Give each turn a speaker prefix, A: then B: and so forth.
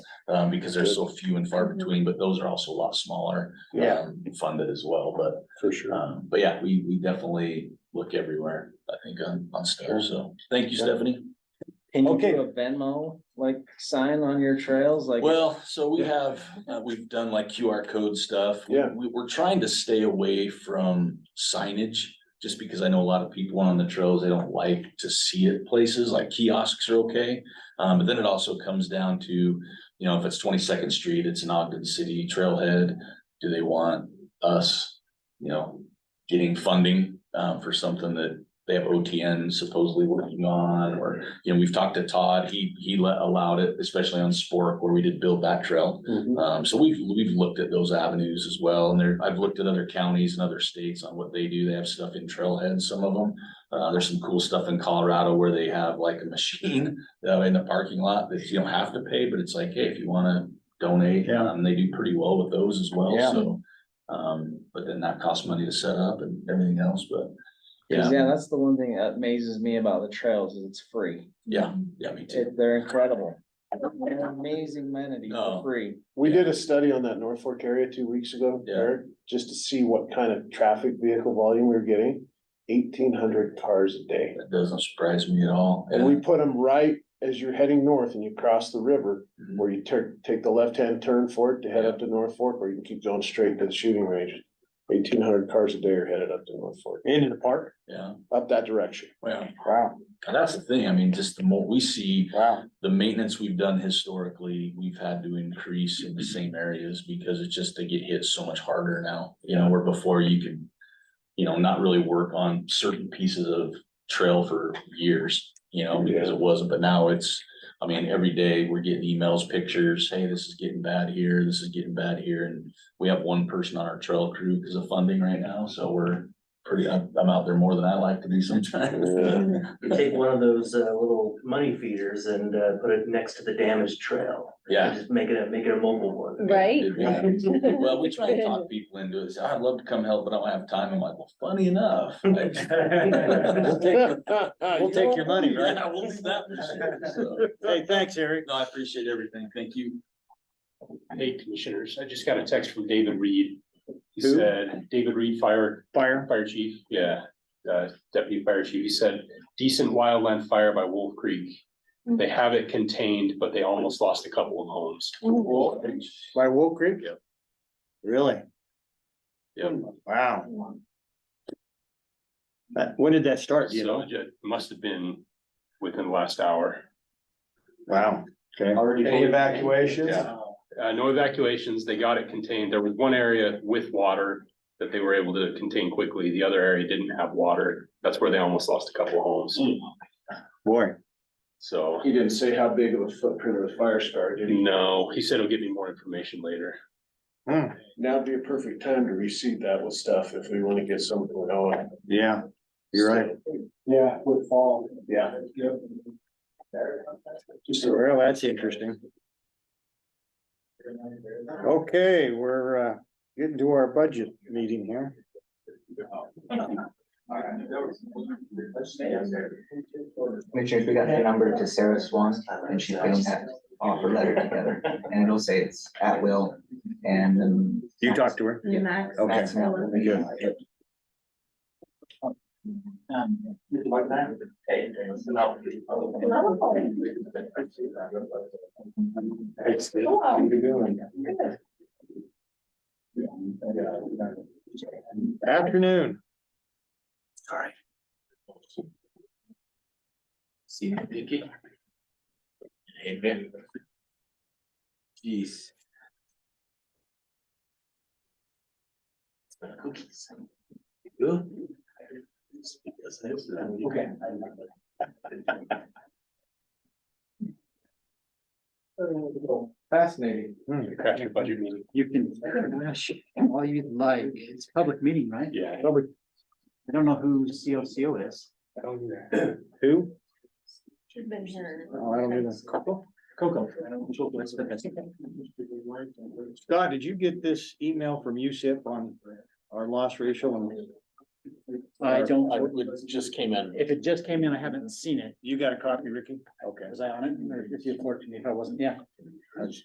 A: Um, because there's so few and far between, but those are also a lot smaller.
B: Yeah,
A: um, Funded as well, but,
B: for sure.
A: um, but yeah, we, we definitely look everywhere, I think, on, on stuff, so, thank you, Stephanie.
C: Can you
B: Okay.
C: do a Venmo, like, sign on your trails, like?
A: Well, so we
B: Yeah.
A: have, uh, we've done like QR code stuff. We-
B: Yeah.
A: We, we're trying to stay away from signage, just because I know a lot of people on the trails, they don't like to see it places, like kiosks are okay. Um, but then it also comes down to, you know, if it's Twenty-second Street, it's an Ogden City trailhead, do they want us, you know, getting funding, um, for something that they have OTN supposedly working on, or you know, we've talked to Todd, he, he let, allowed it, especially on Spork where we did build that trail.
B: Mhm.
A: Um, so we've, we've looked at those avenues as well, and there, I've looked at other counties and other states on what they do, they have stuff in trailheads, some of them. Uh, there's some cool stuff in Colorado where they have like a machine, uh, in the parking lot that you don't have to pay, but it's like, hey, if you wanna donate,
B: Yeah.
A: um, they do pretty well with those as well,
B: Yeah.
A: so. Um, but then that costs money to set up and everything else, but, yeah,
C: 'cause, Yeah, that's the one thing that amazes me about the trails is it's free.
A: yeah, yeah, me too.
C: It, they're incredible. They're amazing amenity
A: Oh.
C: for free.
B: We did a study on that North Fork area two weeks ago,
A: Yeah.
B: Eric, just to see what kind of traffic vehicle volume we were getting. Eighteen hundred cars a day.
A: That doesn't surprise me at all.
B: And we put them right as you're heading north and you cross the river,
A: Mhm.
B: where you turn, take the left-hand turn for it to head up to North Fork, or you can keep going straight to the shooting range. Eighteen hundred cars a day are headed up to North Fork, and in the park,
A: Yeah,
B: up that direction.
A: well,
C: Wow,
A: that's the thing. I mean, just the more we see
C: wow.
A: the maintenance we've done historically, we've had to increase in the same areas because it's just they get hit so much harder now. You know, where before you could, you know, not really work on certain pieces of trail for years, you know, because it wasn't, but now it's. I mean, every day we're getting emails, pictures, hey, this is getting bad here, this is getting bad here, and we have one person on our trail crew because of funding right now, so we're. Pretty, I'm I'm out there more than I like to be sometimes.
B: Yeah.
D: You take one of those uh little money feeders and uh put it next to the damaged trail.
A: Yeah.
D: Just make it a, make it a mobile one.
E: Right?
A: Yeah. Well, we try and talk people into it. So I'd love to come help, but I don't have time. I'm like, well, funny enough. like,
D: Thank
C: We'll take your money,
A: Yeah, we'll do that for sure. So,
C: Hey, thanks, Eric.
A: No, I appreciate everything. Thank you.
F: Hey, commissioners, I just got a text from David Reed. He
C: Who?
F: said, David Reed, fire,
C: Fire.
F: fire chief, yeah, uh, deputy fire chief, he said, decent wildland fire by Wolf Creek. They have it contained, but they almost lost a couple of homes.
C: By Wolf Creek?
F: Yep.
C: Really?
F: Yep.
C: Hmm. Wow. when did that start,
F: So it must have been within the last hour.
C: Wow, okay.
B: Any evacuations?
F: Yeah. Uh, no evacuations, they got it contained. There was one area with water that they were able to contain quickly. The other area didn't have water. That's where they almost lost a couple of homes,
C: Hmm. Boy.
F: so.
B: He didn't say how big of a footprint of the fire started. did
C: Mm.
B: he?
F: No, he said he'll give me more information later.
C: Hmm,
B: Now'd be a perfect time to receive that with stuff if we wanna get something going.
C: Yeah, you're right.
B: Yeah, with fall. Yeah. Just a
C: Well, that's interesting. Okay, we're uh getting to our budget meeting here.
G: Commissioners, we got the number to Sarah Swan, and she fills that offer letter together, and it'll say it's at will, and then.
C: You talked to her?
E: Max.
C: Okay.
E: Maxwell.
C: Good. Afternoon.
G: See you, Vicky. Amen. Jeez. Cookies. Good. Okay.
C: Fascinating.
F: Crash your budget meeting.
H: You can, gosh, all you like, it's a public meeting, right?
F: Yeah.
H: I don't know who COCO is.
C: Who?
E: Should've been her.
C: Oh, I don't either.
H: Coco. I don't know what's the best.
C: Scott, did you get this email from USIP on our loss ratio? And
H: I don't,
F: It just came in.
H: if it just came in, I haven't seen it.
C: You got a copy, Ricky? Okay.
H: Was I on it? Or if you're fortunate, if I wasn't, yeah.
C: That's-